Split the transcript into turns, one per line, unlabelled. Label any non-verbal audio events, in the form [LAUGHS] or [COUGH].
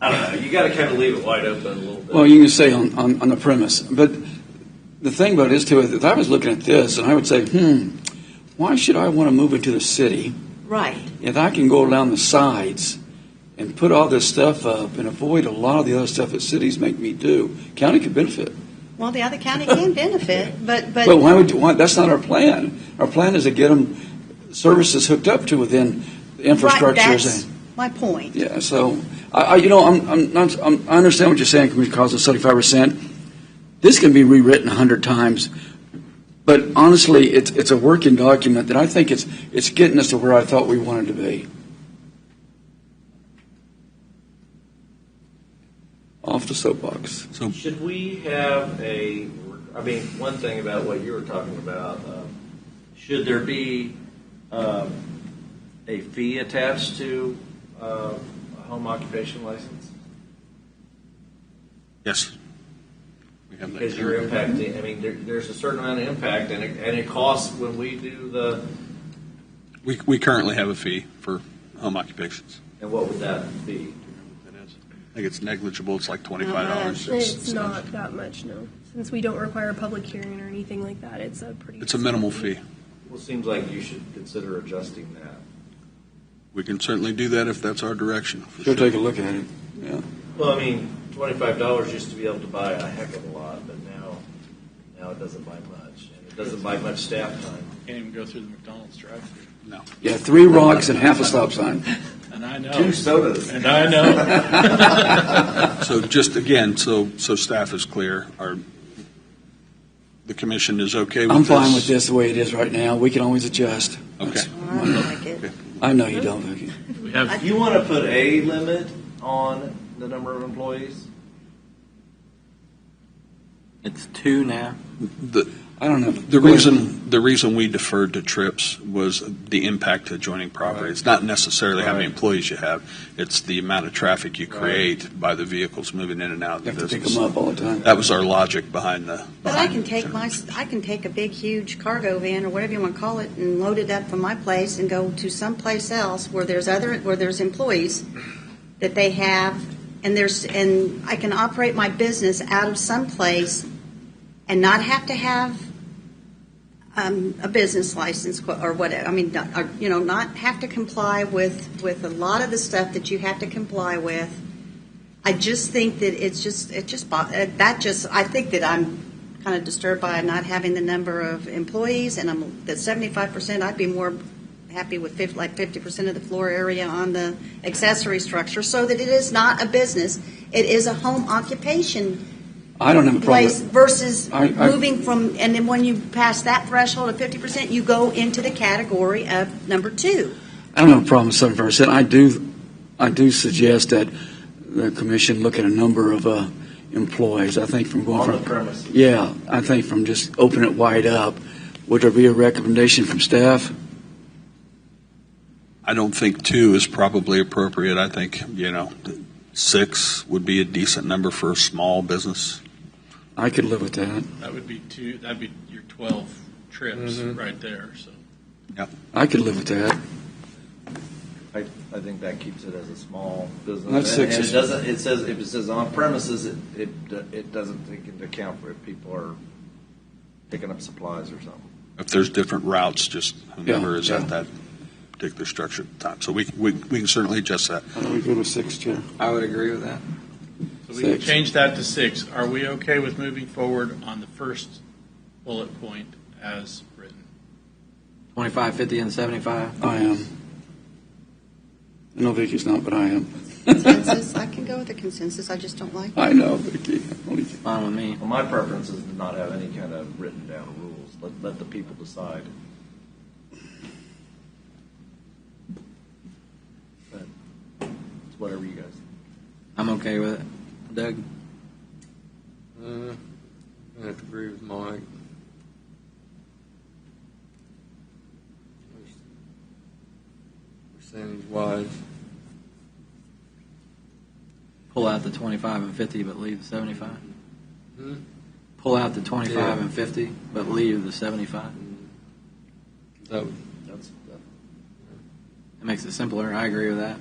I don't know, you gotta kind of leave it wide open a little bit.
Well, you can say on, on, on the premise, but the thing about it is too, if I was looking at this and I would say, hmm, why should I want to move into the city
Right.
if I can go down the sides and put all this stuff up and avoid a lot of the other stuff that cities make me do? County could benefit.
Well, the other county can benefit, but, but.
But why would you want, that's not our plan. Our plan is to get them services hooked up to within the
Right,
infrastructures.
that's
and-
my point.
Yeah, so, I, I, you know, I'm, I'm, not- I'm, I understand what you're saying, Commissioner Cosmo, seventy-five percent. This can be rewritten a hundred times, but honestly, it's, it's a working document that I think it's, it's getting us to where I thought we wanted to be. Off the soapbox.
Should we have a, I mean, one thing about what you were talking about, um, should there be um, a fee attached to um, a home occupation license?
Yes. We have that
Because you're
covered.
impacting, I mean, there, there's a certain amount of impact and it, and it costs when we do the,
We, we currently have a fee for home occupations.
and what would that be?
I think it's negligible, it's like twenty-five dollars.
It's not that much, no. Since we don't require a public hearing or anything like that, it's a pretty.
It's a minimal fee.
Well, it seems like you should consider adjusting that.
We can certainly do that if that's our direction. for
Sure,
sure.
take a look at it.
Well, I mean, twenty-five dollars used to be able to buy a heck of a lot, but now, now it doesn't buy much. And it doesn't buy much staff time.
Can't even go through the McDonald's drive-through.
Yeah, three rocks and half a stop sign.
And I know.
Two sodas.
And I know.
So just again, so, so staff is clear, our, the commission is okay with
I'm
this?
fine with this the way it is right now. We can always adjust.
Okay.
I don't like it.
I know you don't, Vicki.
We have,
If you want to put a limit on the number of employees,
It's two now.
The,
I don't know.
the reason, the reason we deferred to trips was the impact to adjoining property. It's not necessarily how many
Right.
employees you have, it's the amount of traffic you create by the vehicles moving in and out of
You
the
have to pick
business.
them up all the time.
That was our logic behind the.
But I
behind
can
the
take
term.
my, I can take a big, huge cargo van or whatever you want to call it and load it up from my place and go to someplace else where there's other, where there's employees that they have, and there's, and I can operate my business out of someplace and not have to have um, a business license qu- or whatever, I mean, not- or, you know, not have to comply with, with a lot of the stuff that you have to comply with. I just think that it's just, it just, bo- uh, that just, I think that I'm kind of disturbed by not having the number of employees, and I'm, the seventy-five percent, I'd be more happy with fif, like fifty percent of the floor area on the accessory structure, so that it is not a business, it is a home occupation
I don't have a problem.
place
with-
versus
I- I-
moving from, and then when you pass that threshold of fifty percent, you go into the category of number two.
I don't have a problem with seven percent. I do, I do suggest that the commission look at a number of uh, employees. I think from
on the
going from,
premise,
yeah, I think from just opening it wide up, would there be a recommendation from staff?
I don't think two is probably appropriate. I think, you know, six would be a decent number for a small business.
I could live with that.
that would be two, that'd be your 12 trips right there, so.
I could live with that.
I, I think that keeps it as a small business.
That's
And-
six
And
is-
it doesn't, it says, if it says on premises, it, it, do- it doesn't take into account for if people are picking up supplies or something.
If there's different routes, just whoever
Yeah,
is
yeah.
at that particular structure at the time. So we, we, we can certainly adjust that.
I would go to six, Chair.
I would agree with that.
So we can
Six.
change that to six. Are we okay with moving forward on the first bullet point as written?
25, 50, and 75.
I am. I know Vicky's not, but I am. [LAUGHS]
Consensus, I can go with the consensus, I just don't like it.
I know, Vicky. I'm only kidding.
Fine with me.
Well, my preference is to not have any kind of written down rules. Let, let the people decide. But it's whatever you guys.
I'm okay with it. Doug?
Uh, I have to agree with Mike. Percentage wise,
Pull out the 25 and 50, but leave the 75.
Hmm?
Pull out the 25
Yeah.
and 50, but leave the 75.
that
That's,
It makes it simpler. I agree with that.